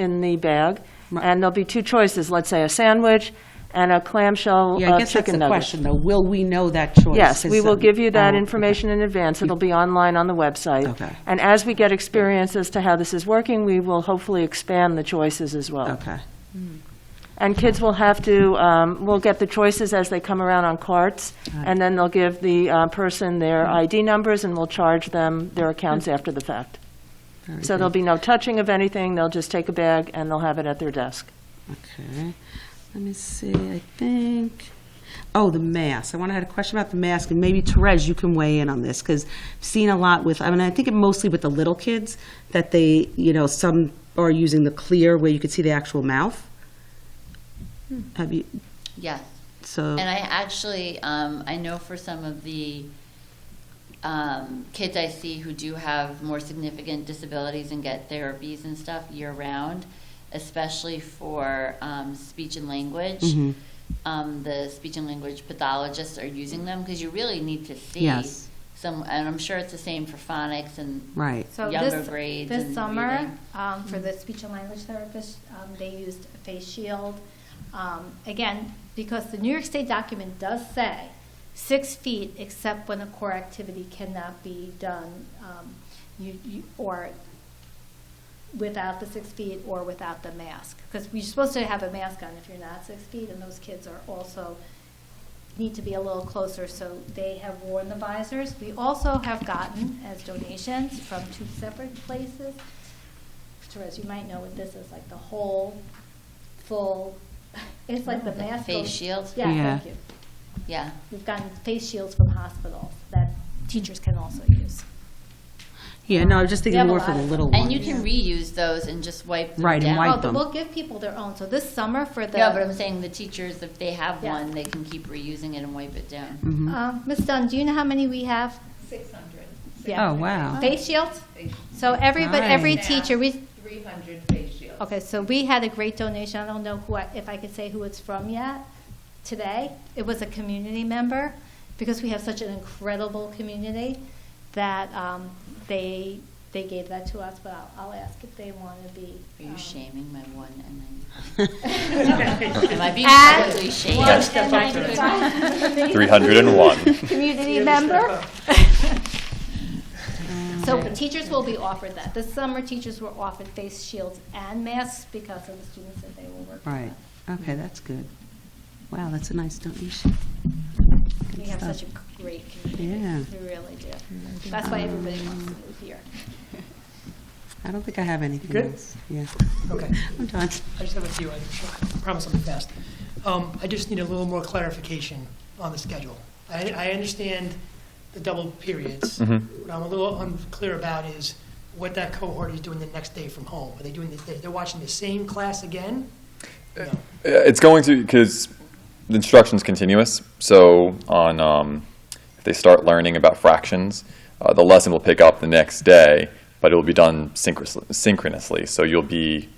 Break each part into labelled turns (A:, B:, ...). A: in the bag,
B: Right.
A: and there'll be two choices, let's say a sandwich and a clamshell
B: Yeah, I
A: uh,
B: guess that's
A: chicken
B: the
A: nugget.
B: question, though. Will we know that choice?
A: Yes, we
B: Is,
A: will
B: um,
A: give you that
B: oh,
A: information in advance. It'll be online on the website.
B: Okay.
A: And as we get experience as to how this is working, we will hopefully expand the choices as well.
B: Okay,
A: And kids will have to, um, will get the choices as they come around on carts,
B: Right.
A: and then they'll give the uh, person their ID numbers, and we'll charge them their accounts after the fact.
B: very
A: So there'll
B: good.
A: be no touching of anything, they'll just take a bag and they'll have it at their desk.
B: Okay, let me see, I think, oh, the mask. I want to had a question about the mask, and maybe Therese, you can weigh in on this, because I've seen a lot with, I mean, I think it mostly with the little kids, that they, you know, some are using the clear where you could see the actual mouth. Have you,
C: Yes,
B: so,
C: and I actually, um, I know for some of the um, kids I see who do have more significant disabilities and get therapies and stuff year round, especially for um, speech and language,
B: Mhm.
C: um, the speech and language pathologists are using them because you really need to see
B: Yes.
C: some, and I'm sure it's the same for phonics and
B: right,
D: So
C: younger
D: this,
C: grades
D: this
C: and
D: summer,
C: reading.
D: um, for the speech and language therapist, um, they used a face shield. Um, again, because the New York State document does say six feet except when a core activity cannot be done, um, you, you, or without the six feet or without the mask. Because you're supposed to have a mask on if you're not six feet, and those kids are also, need to be a little closer, so they have worn the visors. We also have gotten as donations from two separate places. Therese, you might know what this is, like the whole, full, it's like the
C: The
D: mask.
C: face
D: goes-
C: shield?
D: Yeah,
B: Yeah.
D: thank you.
C: yeah.
D: We've gotten face shields from hospitals that teachers can also use.
B: yeah, no, I was just
D: We
B: thinking
D: have a
B: more for
D: lot
B: the
D: of-
B: little ones.
C: And you can reuse those and just wipe them
B: Right, and
C: down.
B: wipe
D: Oh, but
B: them.
D: We'll give people their own, so this summer for the.
C: No, but I'm saying the teachers, if they have
D: Yeah.
C: one, they can keep reusing it and wipe it down.
B: Mhm.
D: Uh, Ms. Dunn, do you know how many we have?
E: 600.
D: Yeah.
B: Oh, wow,
D: Face shields? So every, but every
E: Nice.
D: teacher, we,
E: 300 face shields.
D: okay, so we had a great donation, I don't know who, I- if I could say who it's from yet, today. It was a community member, because we have such an incredible community, that um, they, they gave that to us, but I'll, I'll ask if they want to be.
C: Are you
D: um,
C: shaming my one and then? Am I being
D: And-
C: publicly shamed?
D: One and ninety-five.
F: 301.
D: community member. So teachers will be offered that. This summer, teachers were offered face shields and masks because of the students that they will work
B: right,
D: with.
B: okay, that's good. Wow, that's a nice donation.
D: We have such a great community,
B: Yeah.
D: we really do. That's why everybody wants to move here.
B: I don't think I have anything
G: Good?
B: else. Yeah,
G: Okay,
B: I'm done.
G: I just have a few, I promise I'll be fast. Um, I just need a little more clarification on the schedule. I, I understand the double periods.
F: Mm-hmm.
G: What I'm a little unclear about is what that cohort is doing the next day from home. Are they doing, the- they're watching the same class again? No.
F: Uh, It's going to because the instruction's continuous. So on, um, if they start learning about fractions, uh, the lesson will pick up the next day, but it will be done synchro- synchronously. So you'll be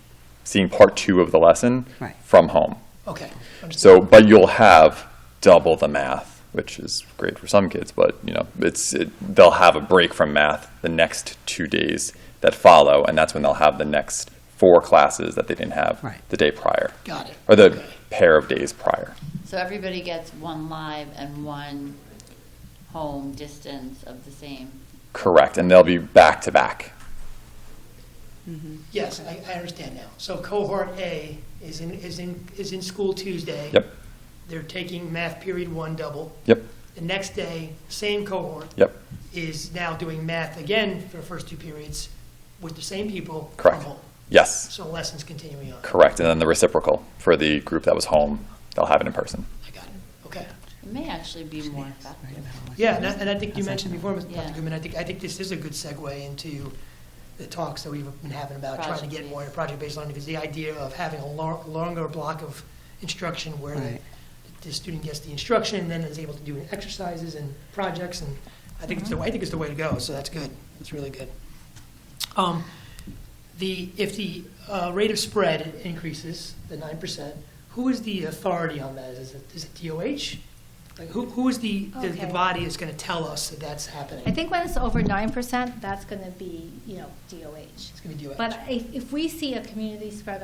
F: seeing part two of the lesson
B: Right.
F: from home.
G: Okay. understood.
F: So, but you'll have double the math, which is great for some kids. But you know, it's it, they'll have a break from math the next two days that follow, and that's when they'll have the next four classes that they didn't have
B: Right.
F: the day prior
G: Got it.
F: or the
G: Okay.
F: pair of days prior.
C: So everybody gets one live and one home distance of the same.
F: Correct, and they'll be back to back.
G: Yes, I, I understand now. So cohort A is in, is in, is in school Tuesday.
F: Yep.
G: They're taking math period one double.
F: Yep.
G: The next day, same cohort.
F: Yep.
G: Is now doing math again for the first two periods with the same people. from
F: Correct.
G: home.
F: Yes.
G: So lessons continuing on.
F: Correct, and then the reciprocal for the group that was home, they'll have it in person.
G: I got it. Okay.
C: It may actually be more effective.
G: Yeah, and I, and I think you mentioned before, Mr.
C: Yeah.
G: Goodman, I think, I think this is a good segue into the talks that we've been having about trying to get more into project-based learning, because the idea of having a lo- longer block of instruction where the,
B: Right.
G: the student gets the instruction and then is able to do exercises and projects, and I think it's the, I think it's the way to go, so that's good. That's really good. Um, the, if the uh, rate of spread increases, the nine percent, who is the authority on that? Is it, is it DOH? Like, who, who is the, the- the
D: Okay.
G: body that's gonna tell us that that's happening?
D: I think when it's over nine percent, that's gonna be, you know, DOH.
G: It's gonna be DOH.
D: But if, if we see a community spread